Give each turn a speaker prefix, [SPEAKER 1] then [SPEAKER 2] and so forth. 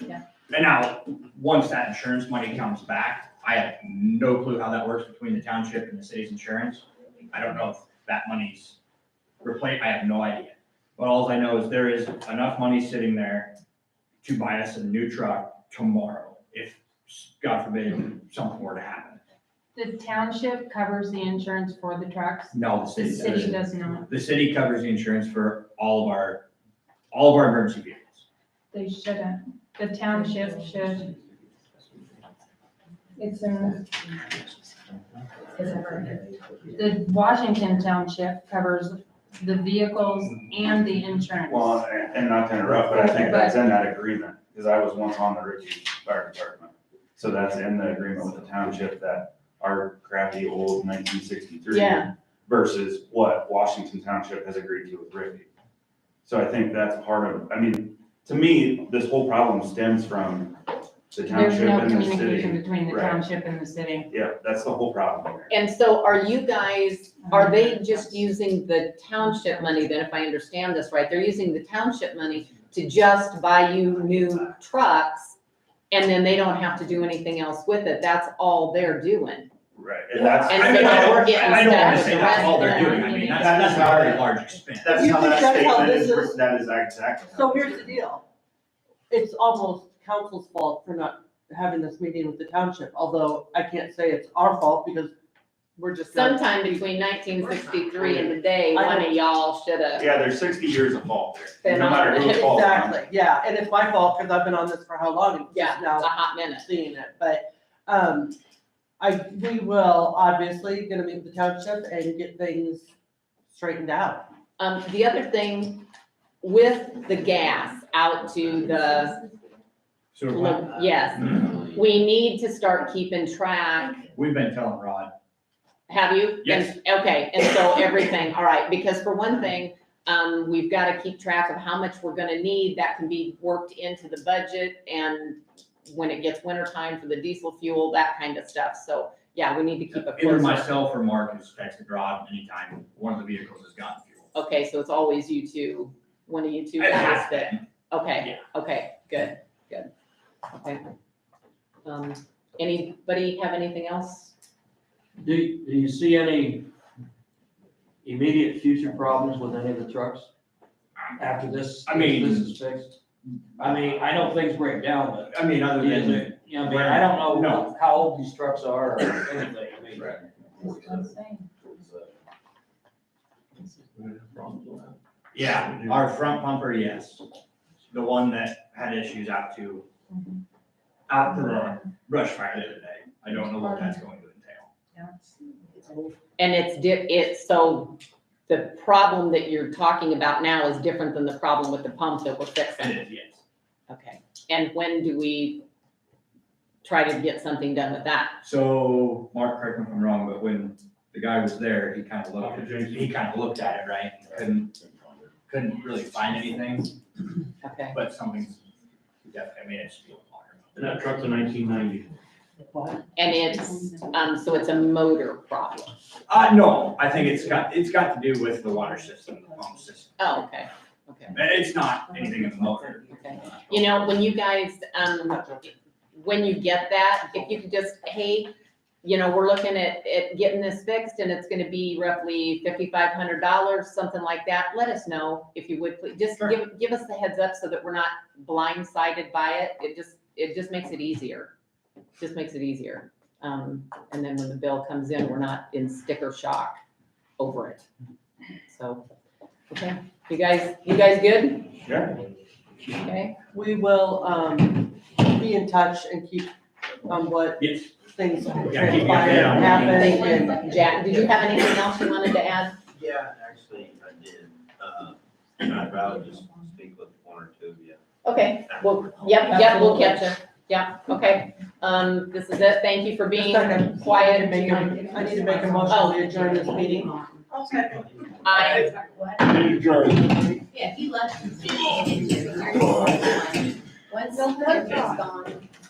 [SPEAKER 1] Yeah.
[SPEAKER 2] And now, once that insurance money comes back, I have no clue how that works between the township and the city's insurance. I don't know if that money's replaced, I have no idea. But all I know is there is enough money sitting there to buy us a new truck tomorrow, if, God forbid, something were to happen.
[SPEAKER 1] The township covers the insurance for the trucks.
[SPEAKER 2] No, the
[SPEAKER 1] The
[SPEAKER 2] city
[SPEAKER 1] city
[SPEAKER 2] doesn't.
[SPEAKER 1] does not.
[SPEAKER 2] The city covers the insurance for all of our, all of our emergency vehicles.
[SPEAKER 1] They shouldn't. The township should.
[SPEAKER 3] It's in,
[SPEAKER 1] The Washington Township covers the vehicles and the insurance.
[SPEAKER 4] Well, and- and not to interrupt, but I think that's in that agreement, because I was once on the Ritchie Fire Department. So that's in the agreement with the township that our crappy old nineteen sixty-three
[SPEAKER 1] Yeah.
[SPEAKER 4] versus what Washington Township has agreed to with Ritchie. So I think that's part of, I mean, to me, this whole problem stems from the
[SPEAKER 1] There's
[SPEAKER 4] township
[SPEAKER 1] no
[SPEAKER 4] and the
[SPEAKER 1] communication
[SPEAKER 4] city.
[SPEAKER 1] between the
[SPEAKER 4] Right.
[SPEAKER 1] township and the city.
[SPEAKER 4] Yeah, that's the whole problem here.
[SPEAKER 5] And so are you guys, are they
[SPEAKER 1] Mm-hmm.
[SPEAKER 5] just using the township money then, if I understand this right? They're using the township money to just buy you new trucks and then they don't have to do anything else with it. That's all they're doing.
[SPEAKER 4] Right, and that's.
[SPEAKER 5] And
[SPEAKER 2] I
[SPEAKER 5] so
[SPEAKER 2] mean, I
[SPEAKER 5] now we're
[SPEAKER 2] don't,
[SPEAKER 5] getting
[SPEAKER 2] I don't wanna
[SPEAKER 5] stuck
[SPEAKER 2] say
[SPEAKER 5] with
[SPEAKER 2] that's all
[SPEAKER 5] the
[SPEAKER 2] they're
[SPEAKER 5] rest of
[SPEAKER 2] doing, I
[SPEAKER 1] them.
[SPEAKER 2] mean, that's, that's not a very large expense.
[SPEAKER 4] That's
[SPEAKER 6] You
[SPEAKER 4] how
[SPEAKER 6] think
[SPEAKER 4] that
[SPEAKER 6] that's how
[SPEAKER 4] statement
[SPEAKER 6] this
[SPEAKER 4] is,
[SPEAKER 6] is?
[SPEAKER 4] that is exactly. how
[SPEAKER 6] So
[SPEAKER 4] it's
[SPEAKER 6] here's the
[SPEAKER 4] written.
[SPEAKER 6] deal. It's almost council's fault for not having this meeting with the township, although I can't say it's our fault because we're just. not-
[SPEAKER 5] Sometime between nineteen sixty-three and today, one of y'all should have.
[SPEAKER 4] Yeah, there's sixty years of fault there,
[SPEAKER 5] Then
[SPEAKER 4] no matter who
[SPEAKER 5] I'll-
[SPEAKER 4] it's fault on.
[SPEAKER 6] Exactly, yeah, and it's my fault because I've been on this for how long? and just
[SPEAKER 5] Yeah, it's a
[SPEAKER 6] Now
[SPEAKER 5] hot minute.
[SPEAKER 6] seeing it, but, um, I, we will obviously gonna meet the township and get things straightened out.
[SPEAKER 5] Um, the other thing with the gas out to the,
[SPEAKER 2] Sewer plant.
[SPEAKER 5] yes, we need to start keeping track
[SPEAKER 2] We've been telling Rod,
[SPEAKER 5] Have you?
[SPEAKER 2] Yes.
[SPEAKER 5] And- Okay, and so everything, all right, because for one thing, um, we've gotta keep track of how much we're gonna need, that can be worked into the budget, and when it gets winter time for the diesel fuel, that kind of stuff, so, yeah, we need to keep a
[SPEAKER 2] either
[SPEAKER 5] close eye.
[SPEAKER 2] myself or Mark has texted Rod anytime one of the vehicles has gotten fuel.
[SPEAKER 5] Okay, so it's always you two, one of you two
[SPEAKER 2] It
[SPEAKER 5] guys
[SPEAKER 2] has
[SPEAKER 5] that,
[SPEAKER 2] been.
[SPEAKER 5] okay, okay, good, good, okay. Um, anybody have anything else?
[SPEAKER 7] Do, do you see any immediate future problems with any of the trucks after this?
[SPEAKER 2] I mean-
[SPEAKER 7] This is fixed? I mean, I know things break down, but,
[SPEAKER 2] I mean, other
[SPEAKER 7] yeah,
[SPEAKER 2] than,
[SPEAKER 7] but, you know, I mean, I don't
[SPEAKER 2] No.
[SPEAKER 7] know how old these trucks are or anything, I mean.
[SPEAKER 2] yeah, our front pumper, yes. The one that had issues out to,
[SPEAKER 5] Mm-hmm.
[SPEAKER 2] out to the brush fire the other day. I don't know what that's going to entail.
[SPEAKER 5] And it's di- it's, so the problem that you're talking about now is different than the problem with the pump that we're fixing.
[SPEAKER 2] It is, yes.
[SPEAKER 5] Okay, and when do we try to get something done with that?
[SPEAKER 2] So, Mark, correct me if I'm wrong, but when the guy was there, he kind of looked, he kind of looked at it, right? and Couldn't, couldn't really find anything,
[SPEAKER 5] Okay,
[SPEAKER 2] but something's definitely, I mean, it's still water.
[SPEAKER 8] And that truck's a nineteen ninety.
[SPEAKER 5] and it's, um, so it's a motor problem.
[SPEAKER 2] Uh, no, I think it's got, it's got to do with the water system, the pump system.
[SPEAKER 5] Oh, okay, okay,
[SPEAKER 2] And It's not anything in the motor.
[SPEAKER 5] okay. You know, when you guys, um, when you get that, if you could just, hey, you know, we're looking at, at getting this fixed and it's gonna be roughly fifty-five hundred dollars, something like that, let us know if you would, please, just
[SPEAKER 2] Sure.
[SPEAKER 5] give, give us the heads up so that we're not blindsided by it, it just, it just makes it easier. Just makes it easier, um, and then when the bill comes in, we're not in sticker shock over it. So, okay, you guys, you guys good?
[SPEAKER 4] Yeah.
[SPEAKER 5] Okay,
[SPEAKER 6] We will, um, be in touch and keep on what
[SPEAKER 2] Yes,
[SPEAKER 6] things
[SPEAKER 2] Yeah, keep me updated
[SPEAKER 6] transpire
[SPEAKER 2] on
[SPEAKER 6] and
[SPEAKER 2] everything.
[SPEAKER 6] happen and
[SPEAKER 5] Jack, did you have anything else you wanted to add?
[SPEAKER 9] Yeah, actually, I did. Uh, I'd rather just speak with one or two of you.
[SPEAKER 5] Okay, well, yep, yep, we'll catch up, yeah, okay, um, this is it, thank you for being quiet and
[SPEAKER 6] Make
[SPEAKER 5] being.
[SPEAKER 6] a- I need to make a motion to adjourn this meeting.
[SPEAKER 5] I,
[SPEAKER 1] Yeah, he left.
[SPEAKER 9] Once
[SPEAKER 1] the picture's
[SPEAKER 9] gone.